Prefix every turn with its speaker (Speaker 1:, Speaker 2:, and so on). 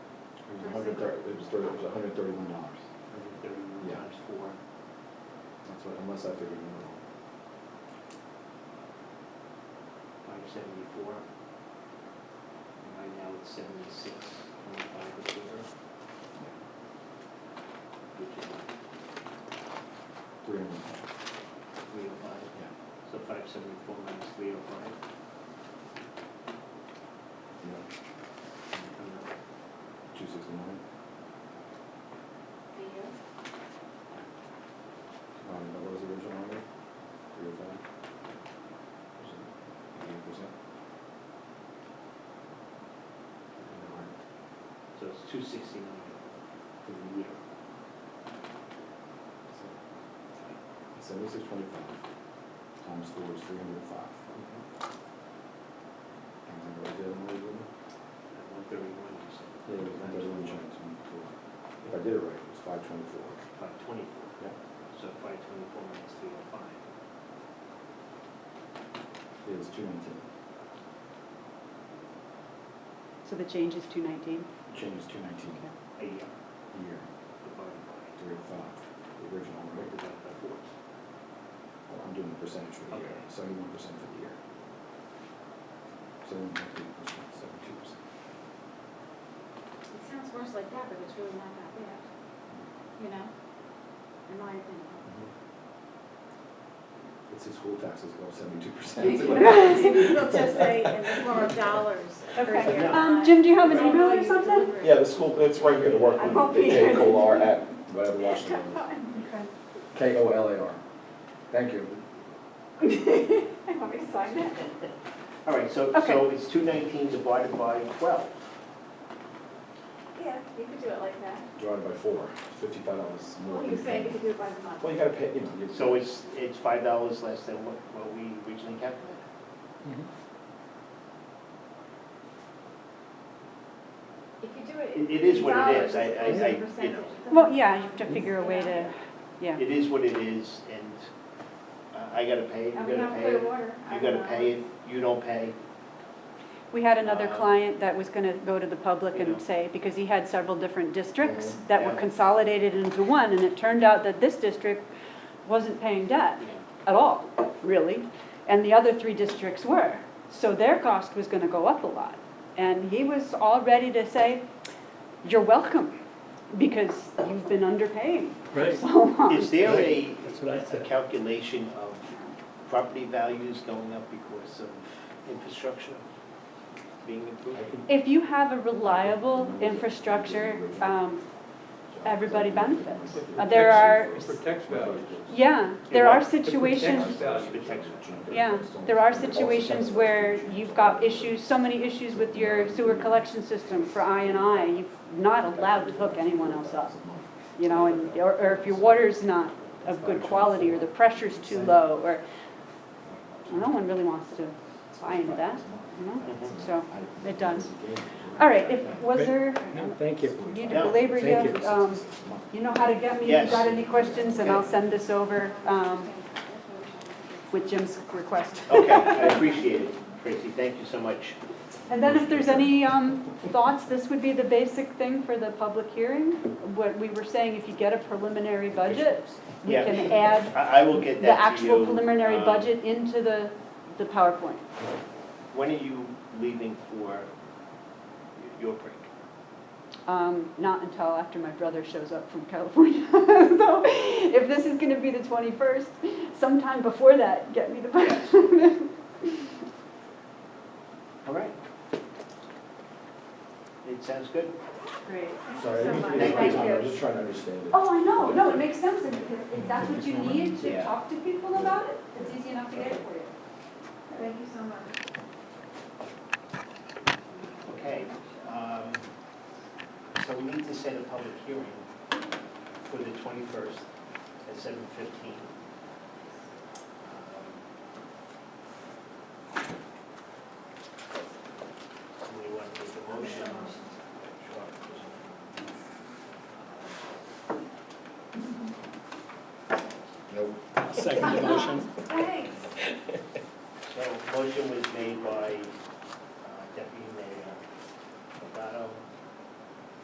Speaker 1: hundred thirty, it was thirty, it was hundred and thirty-one dollars. Yeah.
Speaker 2: Thirty-nine four.
Speaker 1: That's what, unless I figured it wrong.
Speaker 2: five seventy-four. And right now it's seventy-six, point five a share. Which is
Speaker 1: Three hundred,
Speaker 2: three oh five,
Speaker 1: yeah.
Speaker 2: so five seventy-four minus three oh five.
Speaker 1: Yeah, two sixty-nine,
Speaker 3: The year?
Speaker 1: um, that was the original number, three oh five. Eighty percent.
Speaker 2: So it's two sixty-nine for the year.
Speaker 1: Seventy-six twenty-five times four is three hundred and five. And then what was the other one we did?
Speaker 2: At one thirty-one, you said.
Speaker 1: It was thirty-one change, twenty-four. If I did it right, it was five twenty-four.
Speaker 2: Five twenty-four.
Speaker 1: Yeah.
Speaker 2: So five twenty-four minus three oh five.
Speaker 1: It was two nineteen.
Speaker 4: So the change is two nineteen?
Speaker 1: Change is two nineteen
Speaker 2: A year
Speaker 1: a year,
Speaker 2: divided by,
Speaker 1: three oh five, the original rate.
Speaker 2: divided by four.
Speaker 1: Well, I'm doing the percentage for the year,
Speaker 2: Okay.
Speaker 1: seventy-one percent for the year. Seventy-one point three percent, seventy-two percent.
Speaker 3: It sounds worse like that, but it's really not that bad, you know, in my opinion.
Speaker 2: Mm-hmm.
Speaker 1: It's his school taxes go up seventy-two percent.
Speaker 3: It'll just say in the form of dollars per
Speaker 4: Okay.
Speaker 3: year.
Speaker 4: Um, Jim, do you have an email or something?
Speaker 1: Yeah, the school, it's right here, the work,
Speaker 4: I won't
Speaker 1: the
Speaker 4: be here.
Speaker 1: K O L R at, whatever Washington is. K O L A R. Thank you.
Speaker 4: I'm excited.
Speaker 2: All right, so, so
Speaker 4: Okay.
Speaker 2: it's two nineteen divided by twelve.
Speaker 3: Yeah, you could do it like that.
Speaker 1: Divided by four, fifty-five dollars more.
Speaker 3: Well, you say you could do it by the month.
Speaker 1: Well, you gotta pay, you know, you.
Speaker 2: So it's, it's five dollars less than what, what we originally calculated.
Speaker 3: If you do it in
Speaker 2: It, it is what it is, I,
Speaker 3: dollars
Speaker 2: I,
Speaker 3: as opposed to
Speaker 2: I, you know,
Speaker 3: percentage, it doesn't-
Speaker 4: Well, yeah, you have to figure a way to, yeah.
Speaker 2: it is what it is, and uh, I- I gotta pay, it,
Speaker 3: And
Speaker 2: you
Speaker 3: we
Speaker 2: gotta
Speaker 3: don't
Speaker 2: pay it,
Speaker 3: clear water.
Speaker 2: you gotta pay it, you don't pay.
Speaker 4: We had another
Speaker 2: Uh,
Speaker 4: client that was gonna go to the public
Speaker 2: You know.
Speaker 4: and say, because he had several different districts
Speaker 1: Mhm.
Speaker 4: that were
Speaker 2: Yeah.
Speaker 4: consolidated into one, and it turned out that this district wasn't paying debt at all, really, and the other three districts were. So their cost was gonna go up a lot. And he was all ready to say, you're welcome, because you've been underpaying for
Speaker 5: Right.
Speaker 4: so long.
Speaker 2: Is there a,
Speaker 5: That's what I
Speaker 2: a
Speaker 5: said.
Speaker 2: calculation of property values going up because of infrastructure being improved?
Speaker 4: If you have a reliable infrastructure, um, everybody benefits. Uh, There are,
Speaker 5: Protects values.
Speaker 4: yeah, there are
Speaker 5: It
Speaker 4: situations,
Speaker 5: protects values.
Speaker 4: yeah, there are situations where you've got issues, so many issues with your sewer collection system for I and I, you're not allowed to hook anyone else up, you know, and, or, or if your water's not of good quality, or the pressure's too low, or, no one really wants to buy into that, you know, so, it does. All right, if, was there,
Speaker 5: No, thank you.
Speaker 4: you
Speaker 2: No,
Speaker 4: belabor, you
Speaker 5: thank
Speaker 4: have, um, you know how to get me, if
Speaker 2: Yes.
Speaker 4: you've got any questions, and I'll
Speaker 2: Okay.
Speaker 4: send this over,
Speaker 3: Okay,
Speaker 4: um,
Speaker 3: that's what we're trying to do.
Speaker 4: with Jim's request.
Speaker 2: Okay, I appreciate it, Tracy, thank you so much.
Speaker 4: And then if there's any um, thoughts, this would be the basic thing for the public hearing. What we were saying, if you get a preliminary budget, we
Speaker 2: Yeah.
Speaker 4: can add
Speaker 2: I, I will get
Speaker 4: the
Speaker 2: that to you.
Speaker 4: actual preliminary
Speaker 2: um,
Speaker 4: budget into the, the PowerPoint.
Speaker 2: When are you leaving for your break?
Speaker 4: Um, Not until after my brother shows up from California. So if this is gonna be the 21st, sometime before that, get me the budget.
Speaker 2: All right. It sounds good.
Speaker 4: Great.
Speaker 1: Sorry, I didn't mean to
Speaker 2: Thank
Speaker 1: take your time, I
Speaker 2: you.
Speaker 1: was just trying to understand it.
Speaker 4: Oh, I know, no, it makes sense, and if if that's what you need to
Speaker 2: Yeah.
Speaker 4: talk to people about it, it's easy enough to get it for you.
Speaker 3: Thank you so much.
Speaker 2: Okay. um, So we need to set a public hearing for the 21st at 7:15. Somebody want to make a motion?
Speaker 1: Nope.
Speaker 5: Second motion.
Speaker 3: Thanks.
Speaker 2: So motion was made by uh, Deputy Mayor